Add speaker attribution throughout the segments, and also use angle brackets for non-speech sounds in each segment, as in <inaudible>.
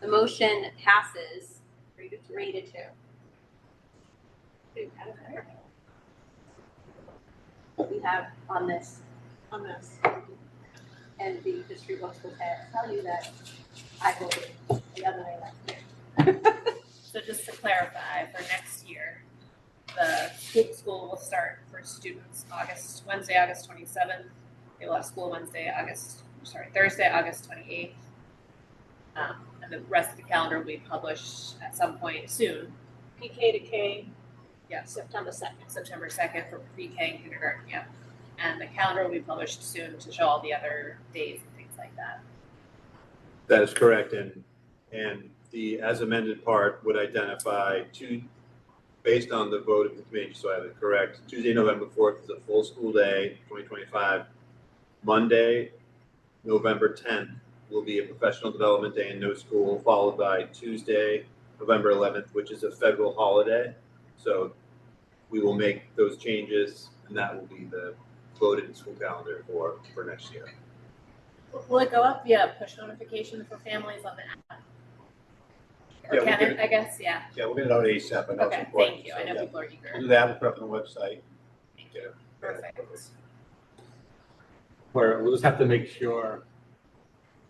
Speaker 1: The motion passes
Speaker 2: Three to two.
Speaker 1: three to two.
Speaker 2: Dude, I don't know.
Speaker 1: What we have on this
Speaker 2: On this.
Speaker 1: and the history books will tell you that I voted the other way last year.
Speaker 3: So just to clarify, for next year, the school will start for students August, Wednesday, August twenty-seventh. They will have school Wednesday, August, sorry, Thursday, August twenty-eighth. Um, and the rest of the calendar will be published at some point soon,
Speaker 2: PK to K,
Speaker 3: yes,
Speaker 2: September second.
Speaker 3: September second for pre-K and kindergarten, yeah. And the calendar will be published soon to show all the other days and things like that.
Speaker 4: That is correct, and, and the as amended part would identify two, based on the vote of the committee, so I have it correct. Tuesday, November fourth is a full school day, twenty twenty-five. Monday, November tenth will be a professional development day and no school, followed by Tuesday, November eleventh, which is a federal holiday. So we will make those changes, and that will be the voted school calendar for, for next year.
Speaker 3: Will it go up via push notification for families on the app?
Speaker 5: Yeah,
Speaker 3: Or
Speaker 5: we
Speaker 3: can
Speaker 5: can-
Speaker 3: it, I guess, yeah,
Speaker 5: Yeah, we'll get it out ASAP, I know it's
Speaker 3: okay,
Speaker 5: important.
Speaker 3: thank you,
Speaker 5: so,
Speaker 3: I know
Speaker 5: yeah.
Speaker 3: people are eager.
Speaker 5: We'll do that, we'll put it up on the website.
Speaker 3: Thank
Speaker 5: Yeah.
Speaker 3: Perfect.
Speaker 6: where we'll just have to make sure.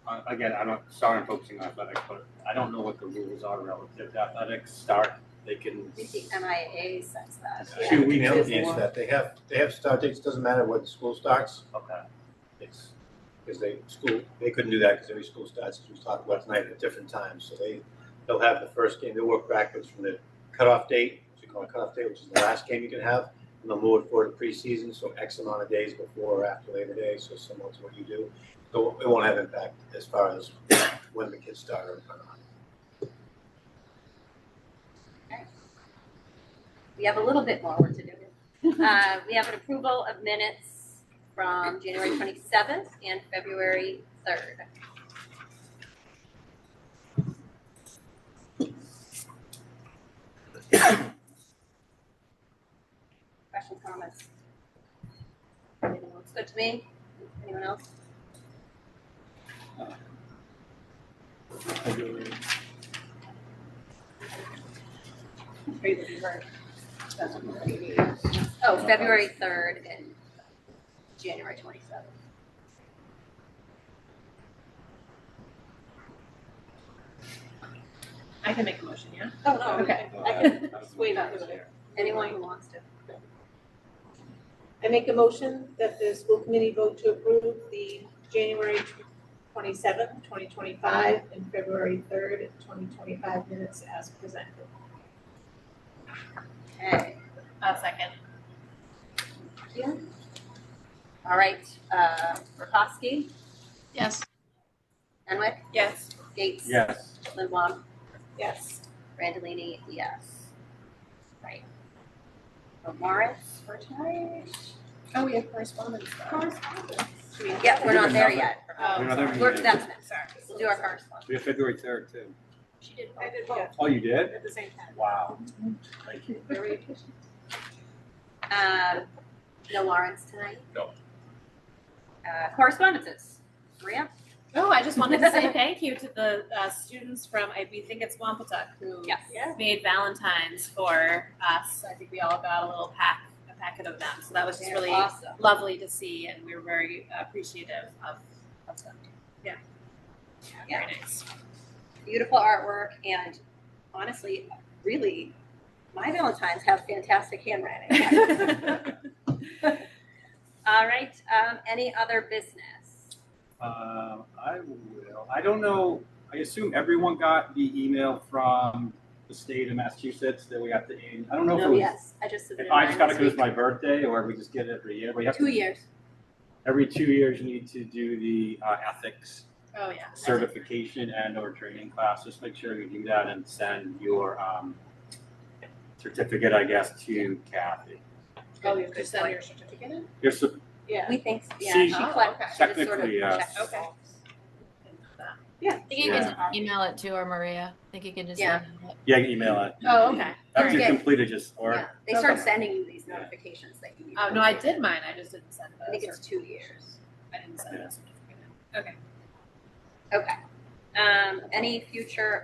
Speaker 6: Uh, again, I'm not, sorry I'm focusing on athletics, but I don't know what the rules are relative to athletics start. They can
Speaker 1: I think the MIA says that.
Speaker 2: Yeah.
Speaker 6: two
Speaker 5: We
Speaker 6: weeks
Speaker 5: can answer
Speaker 6: before.
Speaker 5: that, they have, they have start dates, doesn't matter what school starts,
Speaker 6: Okay.
Speaker 5: it's, because they, school, they couldn't do that because every school starts, as we talked about tonight, at different times, so they, they'll have the first game, they'll work backwards from the cutoff date, which we call a cutoff date, which is the last game you can have, and they'll move it forward to preseason, so X amount of days before or after Labor Day, so similar to what you do. So it won't have impact as far as when the kids start or not.
Speaker 1: We have a little bit more work to do. Uh, we have an approval of minutes from January twenty-seventh and February third. Questions, comments? Everything looks good to me. Anyone else?
Speaker 3: Are you looking for?
Speaker 1: Oh, February third and January twenty-seventh.
Speaker 3: I can make a motion, yeah?
Speaker 1: Oh, no.
Speaker 3: Okay.
Speaker 6: uh,
Speaker 5: Uh,
Speaker 2: Wait, that was it.
Speaker 6: there.
Speaker 1: Anyone who wants to.
Speaker 2: I make a motion that the school committee vote to approve the January twenty seventh, twenty twenty five, and February third, twenty twenty five minutes as presented.
Speaker 1: Okay.
Speaker 3: A second.
Speaker 1: All right, uh, Rokoski,
Speaker 7: Yes.
Speaker 1: Renwick,
Speaker 3: Yes.
Speaker 1: Gates,
Speaker 6: Yes.
Speaker 1: Lindblom,
Speaker 2: Yes.
Speaker 1: Randallini, yes. Right. So Morris, for tonight?
Speaker 3: Oh, we have correspondence.
Speaker 2: Should we-
Speaker 1: Yeah, we're not there
Speaker 6: Another-
Speaker 1: yet.
Speaker 3: Oh,
Speaker 6: Another
Speaker 3: sorry.
Speaker 1: We're, that's next.
Speaker 3: Sorry.
Speaker 1: We'll do our correspondence.
Speaker 6: We have February third too.
Speaker 3: She did.
Speaker 2: I did both
Speaker 6: Oh, you did?
Speaker 2: at the same time.
Speaker 6: Wow. Thank you.
Speaker 2: Very
Speaker 1: Um, no Lawrence tonight?
Speaker 4: No.
Speaker 1: Uh, correspondences, Maria?
Speaker 3: Oh, I just wanted to say thank you to the uh, students from, I we think it's Wampatuck who
Speaker 1: Yes.
Speaker 2: Yeah.
Speaker 3: made Valentine's for us. I think we all got a little pack, a packet of them. So that was just
Speaker 1: They're
Speaker 3: really
Speaker 1: Awesome.
Speaker 3: lovely to see, and we were very appreciative of, of them. Yeah.
Speaker 1: Yeah. <laughs>
Speaker 3: Very nice.
Speaker 1: Beautiful artwork and honestly, really, my Valentines have fantastic handwriting.
Speaker 3: <laughs>
Speaker 1: All right, um, any other business?
Speaker 6: Uh, I will. I don't know. I assume everyone got the email from the state of Massachusetts that we have to. aim- I don't know if it
Speaker 1: No,
Speaker 6: was.
Speaker 1: yes, I just submitted
Speaker 6: If I
Speaker 1: mine
Speaker 6: just got it
Speaker 1: this
Speaker 6: because it's
Speaker 1: week.
Speaker 6: my birthday, or we just get it every year. We have
Speaker 1: Two
Speaker 6: to,
Speaker 1: years.
Speaker 6: every two years you need to do the uh, ethics
Speaker 3: Oh, yeah.
Speaker 6: certification and or training class. Just make sure you do that and send your um, certificate, I guess, to Kathy.
Speaker 3: Oh, you just send your certificate in?
Speaker 6: You're su-
Speaker 2: Yeah.
Speaker 1: We think, yeah,
Speaker 6: See,
Speaker 1: she
Speaker 3: oh,
Speaker 1: collect,
Speaker 3: okay.
Speaker 1: she just sort of
Speaker 6: Technically, yes.
Speaker 1: checks us
Speaker 3: Okay.
Speaker 1: all.
Speaker 7: I think you can just email it to her, Maria. I think you can just
Speaker 1: Yeah.
Speaker 7: email it.
Speaker 6: yeah, email it
Speaker 3: Oh, okay. All
Speaker 6: after
Speaker 3: right.
Speaker 6: you
Speaker 1: Okay.
Speaker 6: complete it. Just or
Speaker 1: Yeah, they start
Speaker 3: Okay.
Speaker 1: sending you these
Speaker 6: Yeah.
Speaker 1: notifications that you.
Speaker 3: Oh, no, I did mine. I just didn't send the
Speaker 1: I think it's
Speaker 3: cert-
Speaker 1: two years.
Speaker 3: I didn't send the certificate in. Okay.
Speaker 1: Okay. Um, any future